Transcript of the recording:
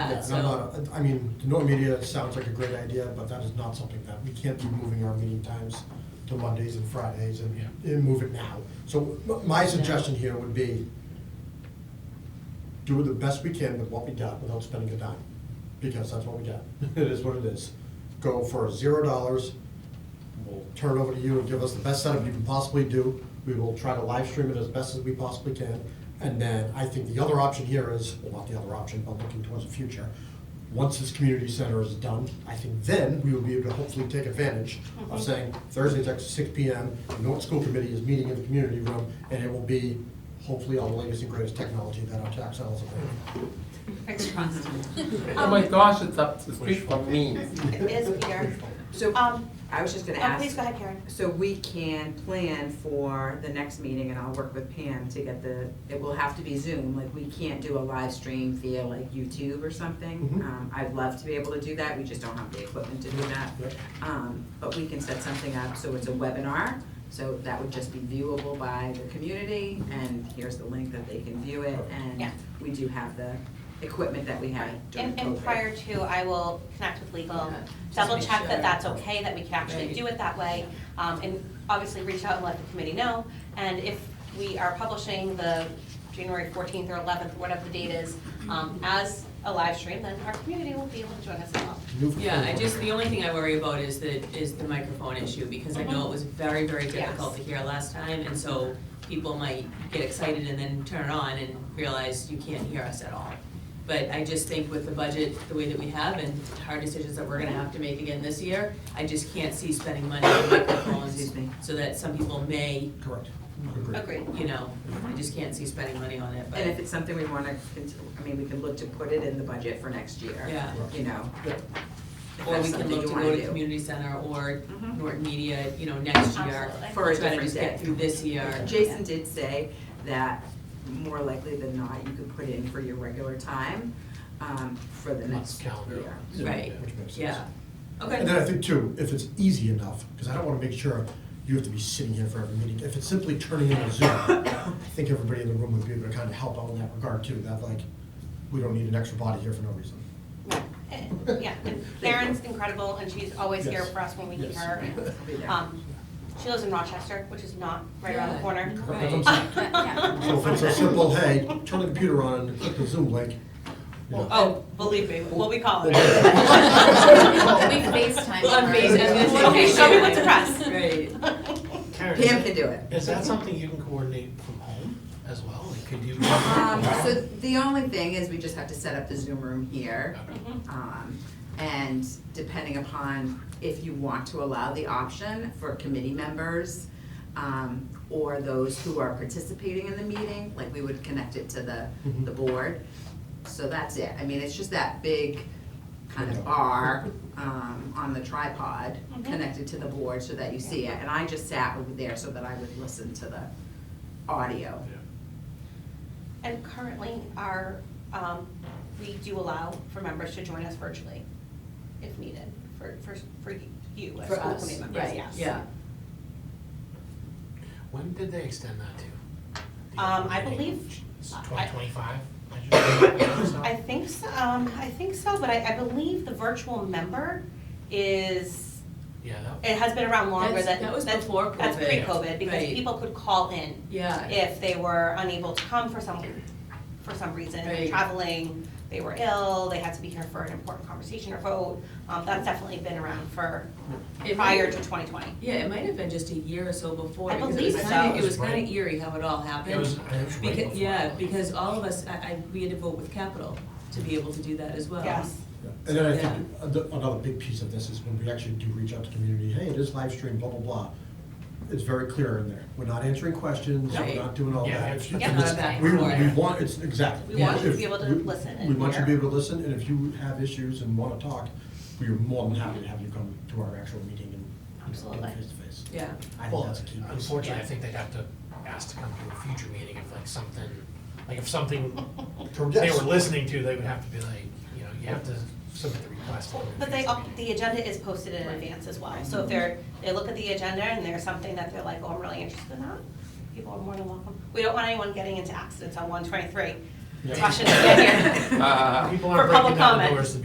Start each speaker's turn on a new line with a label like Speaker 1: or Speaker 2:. Speaker 1: Yeah,
Speaker 2: that,
Speaker 1: and I'm
Speaker 2: so.
Speaker 1: not, I mean, no media sounds like a great idea, but that is not something that, we can't be moving our meeting times to Mondays and Fridays and, and move it now. So m- my suggestion here would be do the best we can with what we got without spending a dime, because that's what we got. It is what it is. Go for zero dollars, we'll turn it over to you and give us the best setup you can possibly do. We will try to live stream it as best as we possibly can. And then I think the other option here is, well, not the other option, but looking towards the future. Once this community center is done, I think then we will be able to hopefully take advantage
Speaker 2: Mm-hmm.
Speaker 1: of saying Thursday's at six P M. The Norton School Committee is meeting in the community room and it will be hopefully all the latest and greatest technology that our tax dollars are paying.
Speaker 2: Thanks, Constantine.
Speaker 3: Oh my gosh, it's up to speak for me.
Speaker 4: It is, Peter.
Speaker 1: Oh,
Speaker 5: So,
Speaker 4: Um,
Speaker 5: I was just gonna
Speaker 4: oh,
Speaker 5: ask.
Speaker 4: please go ahead, Karen.
Speaker 5: So we can plan for the next meeting, and I'll work with Pam to get the, it will have to be Zoom, like, we can't do a live stream via like YouTube or something.
Speaker 1: Mhm.
Speaker 5: Um, I'd love to be able to do that, we just don't have the equipment to do that.
Speaker 1: Yep.
Speaker 5: Um, but we can set something up, so it's a webinar, so that would just be viewable by the community, and here's the link that they can view it, and
Speaker 4: Yeah.
Speaker 5: we do have the equipment that we had during
Speaker 4: And,
Speaker 5: COVID.
Speaker 4: and prior to, I will connect with legal,
Speaker 5: Yeah, just
Speaker 4: double
Speaker 5: make
Speaker 4: check that
Speaker 5: sure.
Speaker 4: that's okay, that we can actually
Speaker 5: Right.
Speaker 4: do it that way. Um, and obviously reach out and let the committee know. And if we are publishing the January fourteenth or eleventh, whatever the date is, um, as a live stream, then our community will be able to join us as well.
Speaker 1: New-
Speaker 2: Yeah, I just, the only thing I worry about is the, is the microphone issue, because I know it was very, very difficult to hear last time, and so people might get excited and then turn it on and realize you can't hear us at all. But I just think with the budget, the way that we have, and hard decisions that we're gonna have to make again this year, I just can't see spending money on microphones,
Speaker 5: Excuse me.
Speaker 2: so that some people may,
Speaker 1: Correct. Agreed.
Speaker 4: Agreed.
Speaker 2: you know, I just can't see spending money on it,
Speaker 5: And if
Speaker 2: but,
Speaker 5: it's something we wanna, cont- I mean, we can look to put it in the budget for next year.
Speaker 2: yeah.
Speaker 5: You know,
Speaker 1: Yeah.
Speaker 5: if
Speaker 2: Or
Speaker 5: that's
Speaker 2: we can
Speaker 5: something
Speaker 2: look
Speaker 5: you
Speaker 2: to
Speaker 5: wanna
Speaker 2: go to
Speaker 5: do.
Speaker 2: community center or
Speaker 5: Mhm.
Speaker 2: Norton Media, you know, next year.
Speaker 4: Mm-hmm. Absolutely.
Speaker 5: For a
Speaker 2: Try to
Speaker 5: different
Speaker 2: just get
Speaker 5: day.
Speaker 2: through this year.
Speaker 5: Uh, Jason did say that more likely than not, you could put in for your regular time, um, for the next
Speaker 1: calendar.
Speaker 5: year.
Speaker 1: Yeah,
Speaker 2: Right.
Speaker 1: Which makes sense.
Speaker 2: Yeah.
Speaker 1: And then
Speaker 2: Okay.
Speaker 1: I think too, if it's easy enough, because I don't want to make sure you have to be sitting here for every meeting. If it's simply turning in a Zoom, I think everybody in the room would be able to kind of help out in that regard too, that like, we don't need an extra body here for no reason.
Speaker 4: And- Yeah, and Karen's incredible, and she's always here
Speaker 1: Yes.
Speaker 4: for us when we need
Speaker 1: Yes.
Speaker 4: her.
Speaker 5: I'll be there.
Speaker 4: Um, she lives in Rochester, which is not right around the
Speaker 2: Yeah.
Speaker 4: corner.
Speaker 1: That's what I'm
Speaker 2: Right.
Speaker 1: saying. So if it's a simple, hey, turn the computer on and click the Zoom link, you know.
Speaker 4: Oh, believe me, what we call it.
Speaker 6: We FaceTime.
Speaker 2: On Face- I was gonna say
Speaker 4: Okay, show me what to
Speaker 2: FaceTime.
Speaker 4: press.
Speaker 2: Right.
Speaker 5: Pam
Speaker 7: Karen,
Speaker 5: can do it.
Speaker 7: is that something you can coordinate from home as well? Like, could you?
Speaker 5: Um, so the only thing is we just have to set up the Zoom room here. Um, and depending upon if you want to allow the option for committee members, um, or those who are participating in the meeting, like we would connect it to the,
Speaker 1: Mhm.
Speaker 5: the board. So that's it, I mean, it's just that big kind of bar, um, on the tripod, connected to the board so that you see it. And I just sat over there so that I would listen to the audio.
Speaker 4: And currently, our, um, we do allow for members to join us virtually if needed, for, for, for you as
Speaker 5: For
Speaker 4: school
Speaker 5: us,
Speaker 4: committee members,
Speaker 5: right,
Speaker 4: yes.
Speaker 2: Yeah.
Speaker 7: When did they extend that to? The
Speaker 4: Um, I
Speaker 7: meeting?
Speaker 4: believe-
Speaker 7: It's
Speaker 4: I-
Speaker 7: 2025?
Speaker 4: I think so, um, I think so, but I, I believe the virtual member is,
Speaker 7: Yeah, that-
Speaker 4: it has been around longer
Speaker 2: That's-
Speaker 4: than.
Speaker 2: that was
Speaker 4: that's-
Speaker 2: before
Speaker 4: That's
Speaker 2: COVID.
Speaker 4: pre-COVID, because
Speaker 2: Right.
Speaker 4: people could call in
Speaker 2: Yeah.
Speaker 4: if they were unable to come for some, for some reason,
Speaker 2: Right.
Speaker 4: traveling, they were ill, they had to be here for an important conversation or vote. Um, that's definitely been around for
Speaker 2: It might-
Speaker 4: prior to twenty twenty.
Speaker 2: Yeah, it might have been just a year or so before.
Speaker 4: I
Speaker 2: because it
Speaker 4: believe
Speaker 2: was
Speaker 4: so.
Speaker 2: kinda- It was kind of eerie how it all happened.
Speaker 7: it was, it was right
Speaker 2: Because,
Speaker 7: before
Speaker 2: yeah,
Speaker 7: that.
Speaker 2: because all of us, I, I, we had to vote with capital to be able to do that as well.
Speaker 4: Yes.
Speaker 1: And then I think a- another big piece of this is when we actually do reach out to community, hey, it is live stream, blah, blah, blah. It's very clear in there. We're not answering questions, we're
Speaker 2: Right.
Speaker 1: not doing all
Speaker 7: Yeah,
Speaker 1: that.
Speaker 7: it's-
Speaker 2: It's not a back
Speaker 1: We,
Speaker 2: and
Speaker 1: we
Speaker 2: forth.
Speaker 1: want, it's, exactly.
Speaker 4: We want you to
Speaker 1: If-
Speaker 4: be able to
Speaker 1: we-
Speaker 4: listen and
Speaker 1: We want you to be
Speaker 4: hear.
Speaker 1: able to listen, and if you have issues and wanna talk, we are more than happy to have you come to our actual meeting and, you know,
Speaker 4: Absolutely.
Speaker 1: get face to face.
Speaker 2: Yeah.
Speaker 1: I think
Speaker 7: Well,
Speaker 1: that's a key piece.
Speaker 7: unfortunately, I
Speaker 2: Yeah.
Speaker 7: think they'd have to ask to come to a future meeting if like something, like if something they
Speaker 1: Yes.
Speaker 7: were listening to, they would have to be like, you know, you have to submit the request. for
Speaker 4: But they,
Speaker 7: future
Speaker 4: up-
Speaker 7: meeting.
Speaker 4: the agenda is posted in advance as well, so if they're, they look at the agenda and there's something that they're like, oh, I'm really interested in that, people are more than welcome. We don't want anyone getting into accidents on one twenty-three,
Speaker 7: rushing to get here.
Speaker 8: Uh,
Speaker 4: People
Speaker 7: For
Speaker 4: aren't breaking
Speaker 7: public
Speaker 4: down the
Speaker 7: comment.
Speaker 4: doors to